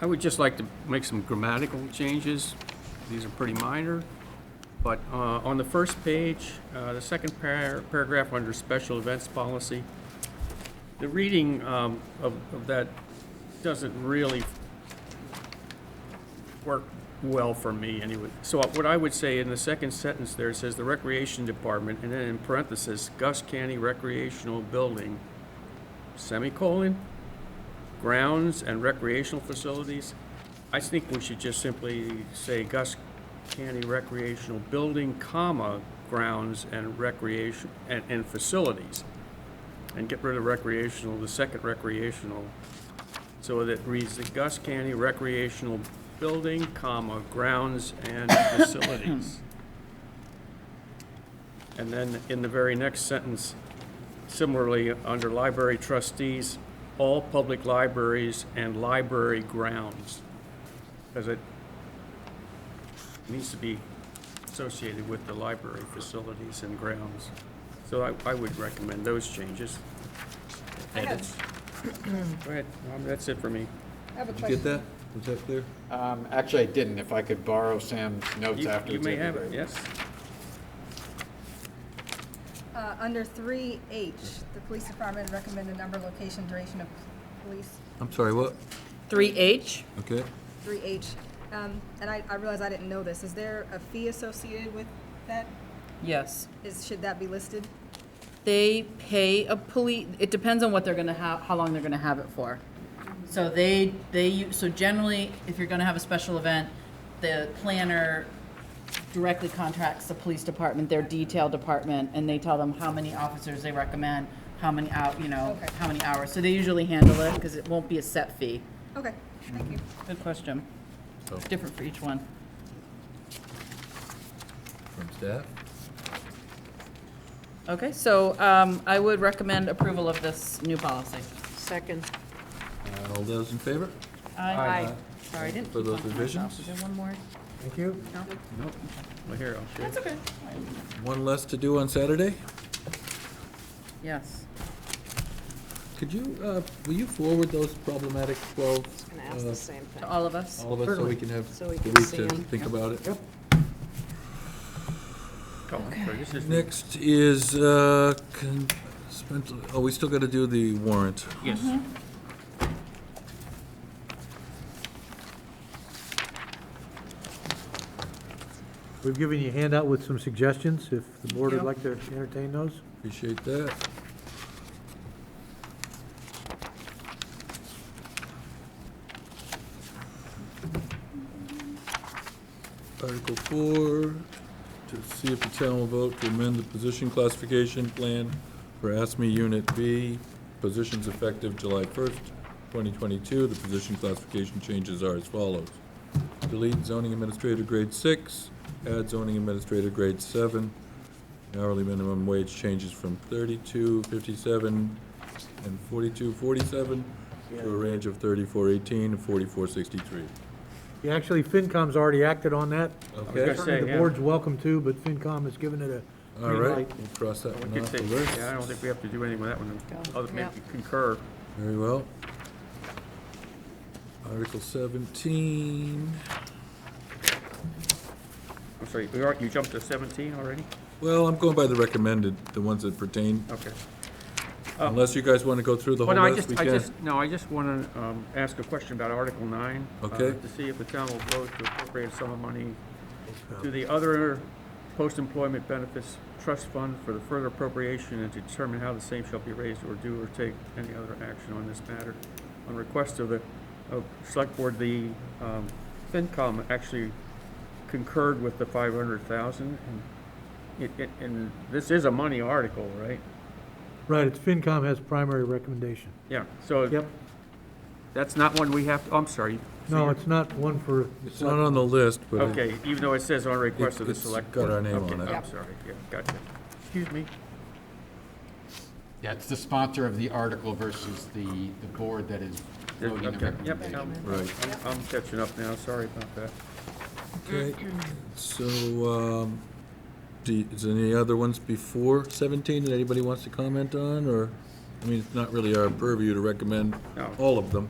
I would just like to make some grammatical changes. These are pretty minor. But uh, on the first page, uh, the second par- paragraph under special events policy, the reading um, of of that doesn't really work well for me anyway. So what I would say in the second sentence there, it says the recreation department, and then in parentheses, Gus Canny Recreational Building, semicolon, grounds and recreational facilities. I think we should just simply say Gus Canny Recreational Building, comma, grounds and recreation, and, and facilities. And get rid of recreational, the second recreational, so that reads the Gus Canny Recreational Building, comma, grounds and facilities. And then in the very next sentence, Similarly, under library trustees, all public libraries and library grounds, because it needs to be associated with the library facilities and grounds. So I, I would recommend those changes. I have- Edits. Go ahead, Norm, that's it for me. I have a Did you get question. that? Was that clear? Um, Actually, I didn't. If I could borrow Sam's notes You you afterwards. may that'd have it, be great. yes? Uh, Under 3H, the police department recommended number, location, duration of police, I'm sorry, what? 3H? Okay. 3H. Um, And I I realize I didn't know this. Is there a fee associated with that? Yes. Is, should that be listed? They pay a police, it depends on what they're gonna have, how long they're gonna have it for. So they, they, u- so generally, if you're gonna have a special event, the planner directly contracts the police department, their detail department, and they tell them how many officers they recommend, how many out, you know, Okay. how many hours. So they usually handle it, because it won't be a set fee. Okay, thank you. Good question. So It's different for each one. from staff? Okay, so um, I would recommend approval of this new policy. Second. Uh, All those in favor? Aye. Sorry, I didn't For keep those on to myself. revisions? Is there one more? Thank you. Nope. Well, here, I'll show you. That's okay. One less to do on Saturday? Yes. Could you, uh, will you forward those problematic 12? Going to ask the uh, same thing. To all of us? All of us, so we can have So the we week can see to 'em. think about it. Oh, I'm sorry, this is- Next is, uh, con- spent- oh, we still got to do the warrant. Yes. Mm-hmm. We've given you a handout with some suggestions, if the board Yeah. would like to entertain those. Appreciate that. Article four, to see if the town will vote to amend the position classification plan for ASME Unit B, positions effective July first, twenty twenty-two. The position classification changes are as follows. Delete zoning administrator grade six, add zoning administrator grade seven, Hourly minimum wage changes from thirty-two fifty-seven and forty-two forty-seven to a range of thirty-four eighteen and forty-four sixty-three. Yeah, Actually, FinCom's already acted on that. gonna Okay, say, The yeah. board's welcome to, but FinCom has given it a all green right, light. we'll cross that We one could off the take- list. Yeah, I don't think we have to do anything with that one, other than maybe concur. Very well. Article seventeen, I'm sorry, we are- you jumped to 17 already? well, I'm going by the recommended, the ones that pertain, Okay. unless you guys want to go through the Oh. Well, whole no, I list, just, we I can. just, no, I just want to ask a question about Article 9. uh, Okay. To see if the town will vote to appropriate a sum of money to the other post-employment benefits trust fund for the further appropriation and to determine how the same shall be raised or do or take any other action on this matter. On request of the, of Select Board, the um, FinCom actually concurred with the 500,000. and it- it- And this is a money article, right? Right, it's FinCom has primary recommendation. Yeah, so. Yep. That's not one we have, to. oh, I'm sorry. No, it's not one for, It's not on the list, but. it- Okay, even though it says on request of the It's- select it's got board. our name Okay, on it. I'm sorry, yeah, gotcha. Excuse me. Yeah, it's the sponsor of the article versus the, the board that is voting the Okay, yep, recommendation. I'm, Right. I'm- I'm catching up now, sorry about that. Okay, so, um, do, is there any other ones before seventeen that anybody wants to comment on, or? I mean, it's not really our purview to recommend No. all of them.